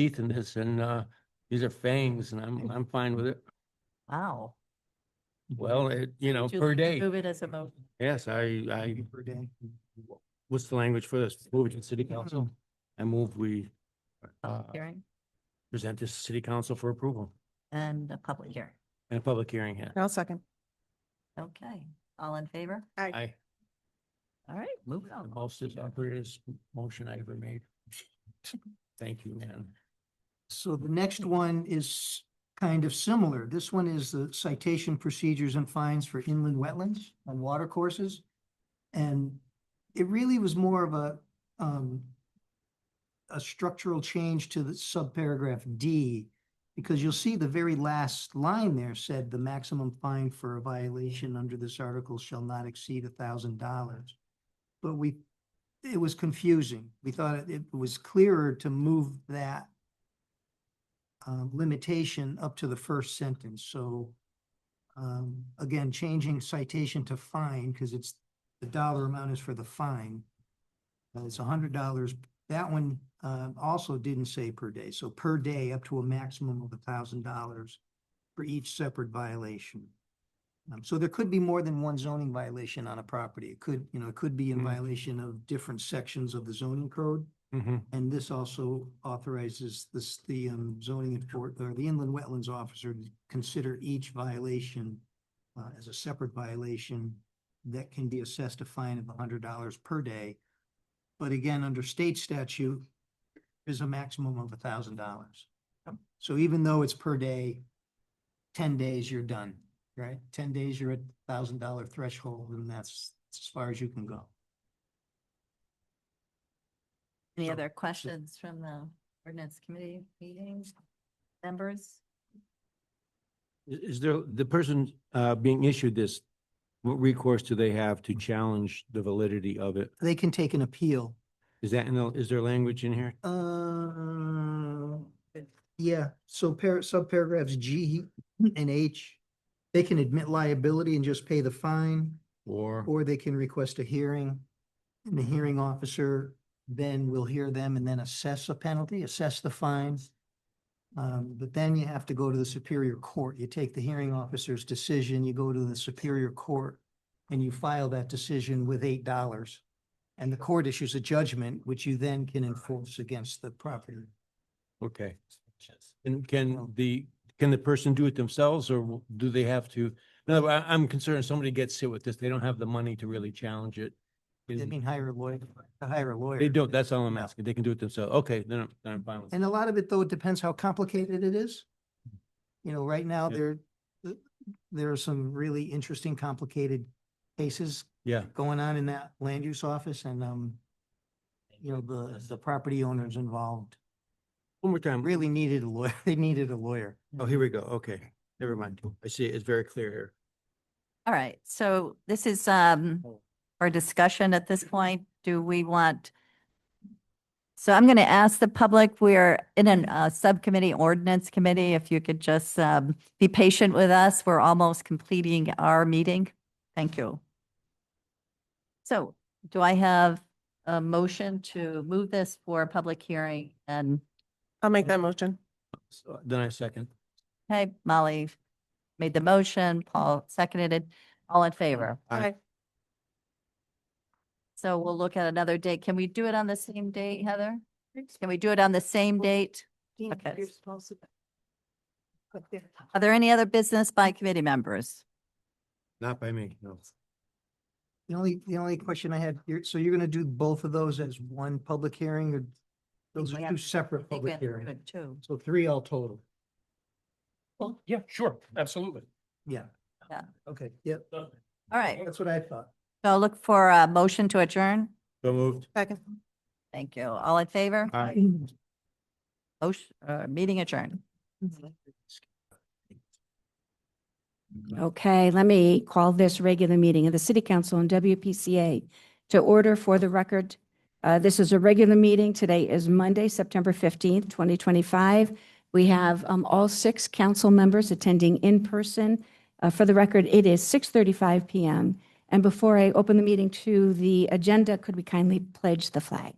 teeth in this and, uh, these are fangs and I'm, I'm fine with it. Wow. Mm-hmm. Well, it, you know, Would you per like to day. Move it as a motion. Yes, I, I, what's the language for this? Move it to city council. I move we, uh, public hearing present this to city council for approval and a public hearing. and a public hearing. yeah. I'll second. Okay, all in favor? I, All right, moving the on. most operator's motion I ever made. Thank you, man. So the next one is kind of similar. This one is the citation procedures and fines for inland wetlands and water courses. And it really was more of a, um, a structural change to the subparagraph D, because you'll see the very last line there said the maximum fine for a violation under this article shall not exceed a thousand dollars. But we, it was confusing. We thought it- it was clearer to move that um, limitation up to the first sentence, so um, again, changing citation to fine, because it's, the dollar amount is for the fine. Uh, It's a hundred dollars. That one um, also didn't say per day, so per day up to a maximum of a thousand dollars for each separate violation. Um, So there could be more than one zoning violation on a property. It could, you know, it could be in Mm. violation of different sections of the zoning code. Mhm. And this also authorizes this, the um, zoning enfor, or the inland wetlands officer to consider each violation uh, as a separate violation that can be assessed a fine of hundred dollars per day. But again, under state statute, there's a maximum of thousand dollars. So even though it's per day, ten days, you're done, right? Ten days, you're at thousand dollar threshold, and that's as far as you can go. Any So- other questions from the ordinance committee meetings? Members? Is, is there, the person, uh, being issued this, what recourse do they have to challenge the validity of it? They can take an appeal. Is that in the, is there language in here? Uh, yeah, so par, subparagraphs G and H, they can admit liability and just pay the fine, Or, or they can request a hearing. And the hearing officer then will hear them and then assess a penalty, assess the fine. Um, but then you have to go to the Superior Court. You take the hearing officer's decision, you go to the Superior Court, and you file that decision with eight dollars. And the court issues a judgment, which you then can enforce against the property. okay. And can the, can the person do it themselves or do they have to? No, I, I'm concerned somebody gets hit with this. They don't have the money to really challenge it. I mean, hire a lawyer, hire a lawyer. They don't, that's all I'm asking. They can do it themselves. Okay, then I'm, then I'm fine with it. And a lot of it, though, it depends how complicated it is. You know, right now, Yeah. there, th- there are some really interesting, complicated cases Yeah, going on in that land use office and, um, you know, the, the property owners involved one more time. really needed a lawyer. They needed a lawyer. Oh, here we go. Okay, never mind. I see it. It's very clear here. All right, so this is um our discussion at this point. Do we want? So I'm going to ask the public, we're in a subcommittee ordinance committee, if you could just um be patient with us. We're almost completing our meeting. Thank you. So do I have a motion to move this for a public hearing? And, I'll make that motion. So Then I second. hey, Molly made the motion, Paul seconded it. All in favor? Aye. So we'll look at another date. Can we do it on the same date, Heather? Can we do it on the same date? Okay. you're Are there any other business by committee members? Not by me, no. The only, the only question I had, you're, so you're gonna do both of those as one public hearing or those we are have two to- separate I think we public have to do hearings? it too. So three all total. Well, yeah, sure, absolutely. Yeah. Yeah. Okay, yep, All right, that's what I thought. so I'll look for a motion to adjourn. So moved. Second. Thank you. All in favor? Aye. Motion, uh, meeting adjourned. Okay, let me call this regular meeting of the City Council and WPCA to order for the record. Uh, This is a regular meeting. Today is Monday, September 15th, 2025. We have um, all six council members attending in person. Uh, For the record, it is 6:35 PM. And before I open the meeting to the agenda, could we kindly pledge the flag?